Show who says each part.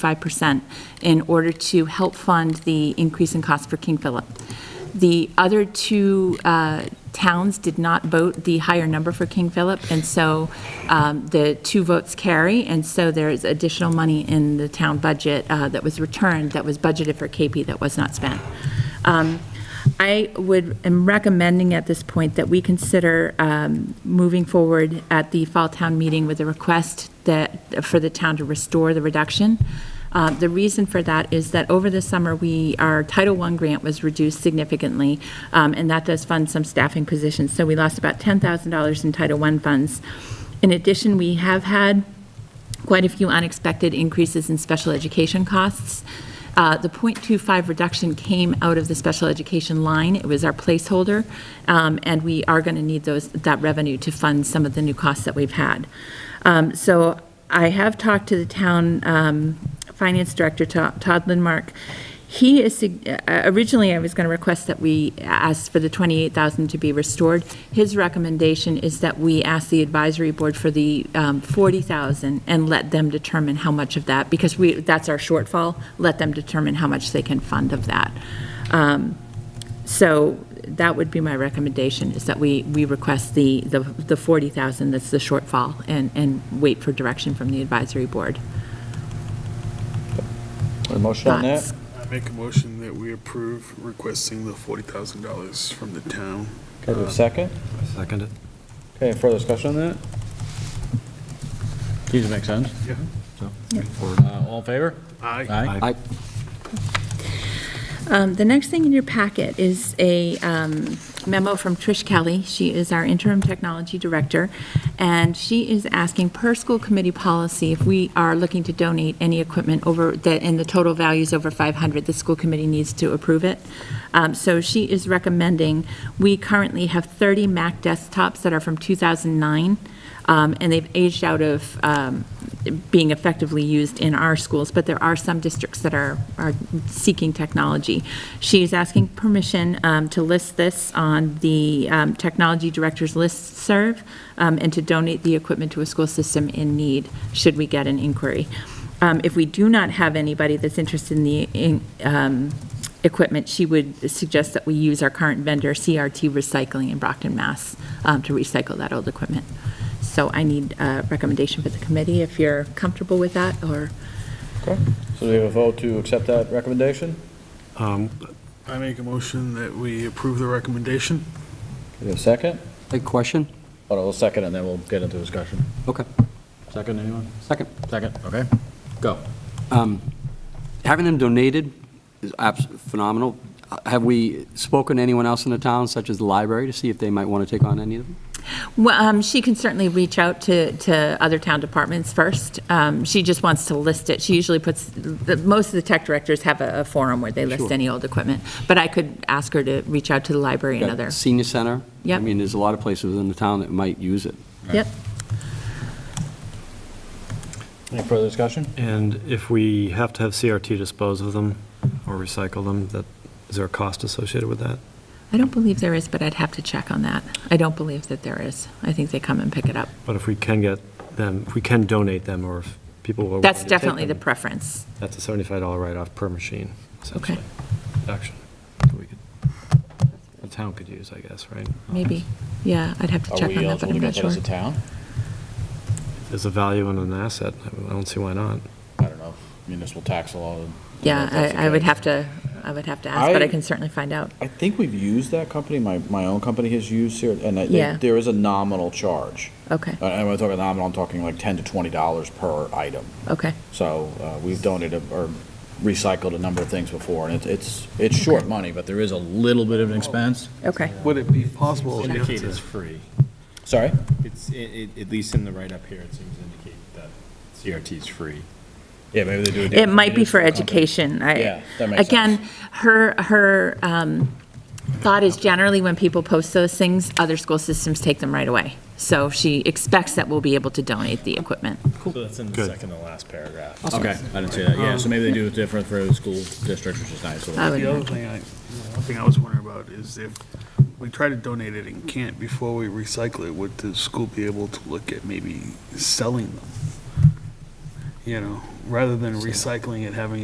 Speaker 1: 5% in order to help fund the increase in cost for King Philip. The other two uh, towns did not vote the higher number for King Philip, and so um, the two votes carry, and so there is additional money in the town budget uh, that was returned, that was budgeted for KP that was not spent. Um, I would, am recommending at this point that we consider um, moving forward at the fall town meeting with a request that, for the town to restore the reduction. Uh, The reason for that is that over the summer, we, our Title I grant was reduced significantly, um, and that does fund some staffing positions. So we lost about $10,000 in Title I funds. In addition, we have had quite a few unexpected increases in special education costs. Uh, The .25 reduction came out of the special education line. It was our placeholder, um, and we are going to need those, that revenue to fund some of the new costs that we've had. Um, So I have talked to the town um, finance director, To- Todd Lindmark. He is, sug- uh, originally, I was going to request that we ask for the 28,000 to be restored. His recommendation is that we ask the advisory board for the um, 40,000 and let them determine how much of that, because we, that's our shortfall, let them determine how much they can fund of that. Um, So that would be my recommendation, is that we, we request the, the the 40,000 that's the shortfall and, and wait for direction from the advisory board.
Speaker 2: A motion on
Speaker 1: Thoughts?
Speaker 2: that?
Speaker 3: I make a motion that we approve requesting the forty thousand dollars from the town.
Speaker 2: Okay, do we have a second?
Speaker 4: Second it.
Speaker 2: Okay, any further discussion on that? These make sense.
Speaker 3: Yeah.
Speaker 2: Uh, All in favor?
Speaker 3: Aye.
Speaker 2: Aye.
Speaker 4: Aye.
Speaker 1: Um, The next thing in your packet is a um, memo from Trish Kelly. She is our interim technology director, and she is asking per school committee policy if we are looking to donate any equipment over, that, and the total value is over 500, the school committee needs to approve it. Um, So she is recommending, we currently have 30 Mac desktops that are from 2009, um, and they've aged out of um, being effectively used in our schools, but there are some districts that are, are seeking technology. She is asking permission um, to list this on the um, technology director's listserv um, and to donate the equipment to a school system in need, should we get an inquiry. Um, If we do not have anybody that's interested in the in, um, equipment, she would suggest that we use our current vendor, CRT Recycling in Brockton, Mass, um, to recycle that old equipment. So I need a recommendation for the committee, if you're comfortable with that, or,
Speaker 2: Okay, so do we have a vote to accept that recommendation?
Speaker 3: Um, I make a motion that we approve the recommendation.
Speaker 2: Do we have a second?
Speaker 4: A question?
Speaker 2: Hold on, we'll second and then we'll get into discussion.
Speaker 4: Okay,
Speaker 2: Second, anyone?
Speaker 4: second. Um,
Speaker 2: Second, okay. Go.
Speaker 4: Having them donated is abs- phenomenal. Uh, Have we spoken to anyone else in the town, such as the library, to see if they might want to take on any of them?
Speaker 1: well, um, she can certainly reach out to, to other town departments first. Um, She just wants to list it. She usually puts, the- most of the tech directors have a a forum where they list
Speaker 4: Sure.
Speaker 1: any old equipment, but I could ask her to reach out to the library and
Speaker 4: Got
Speaker 1: other.
Speaker 4: Senior center? I
Speaker 1: Yep.
Speaker 4: mean, there's a lot of places in the town that might use it.
Speaker 1: Yep,
Speaker 2: Any further discussion?
Speaker 5: And if we have to have CRT dispose of them or recycle them, that, is there a cost associated with that?
Speaker 1: I don't believe there is, but I'd have to check on that. I don't believe that there is. I think they come and pick it up.
Speaker 5: But if we can get them, if we can donate them, or if people will.
Speaker 1: That's
Speaker 5: want Oh, to take
Speaker 1: definitely the
Speaker 5: them,
Speaker 1: preference.
Speaker 5: That's a seventy-five dollar write-off per machine, essentially. Action. The town could use, I guess, right?
Speaker 1: Maybe, yeah, I'd have to
Speaker 2: Are
Speaker 1: check on
Speaker 2: we
Speaker 1: that, but
Speaker 2: eligible
Speaker 1: I'm
Speaker 2: to
Speaker 1: not
Speaker 2: get that
Speaker 1: sure.
Speaker 2: as a town?
Speaker 5: There's a value in an asset, I don't see why not.
Speaker 2: I don't know. Municipal tax law. I don't know if
Speaker 1: Yeah,
Speaker 2: that's
Speaker 1: I, I would
Speaker 2: okay.
Speaker 1: have to, I would have to ask, but I
Speaker 2: I-
Speaker 1: can certainly find out.
Speaker 2: I think we've used that company, my, my own company has used here, and I-
Speaker 1: Yeah.
Speaker 2: they- there is a nominal charge.
Speaker 1: Okay,
Speaker 2: Uh, And when I talk about nominal, I'm talking like 10 to 20 dollars per item.
Speaker 1: okay,
Speaker 2: So uh, we've donated or recycled a number of things before, and it's- it's, it's short money, but there is a little bit of an expense.
Speaker 1: okay.
Speaker 3: Would it be possible?
Speaker 6: Indicate it's free.
Speaker 2: Sorry?
Speaker 6: It's, i- i- at least in the write-up here, it seems to indicate that CRT is free.
Speaker 2: Yeah, maybe they do it.
Speaker 1: It might be for education. I-
Speaker 2: Yeah, that makes
Speaker 1: Again, her, her um, thought is generally when people post those things, other school systems take them right away. So she expects that we'll be able to donate the equipment.
Speaker 6: So that's in the
Speaker 5: Good.
Speaker 6: second to last paragraph.
Speaker 2: Okay, I didn't see that, yeah, so maybe they do it different for the school districts, which is nice. so-
Speaker 1: I would
Speaker 3: The other
Speaker 1: imagine.
Speaker 3: thing I, one thing I was wondering about is if we try to donate it and can't before we recycle it, would the school be able to look at maybe selling them? you know, rather than recycling it, having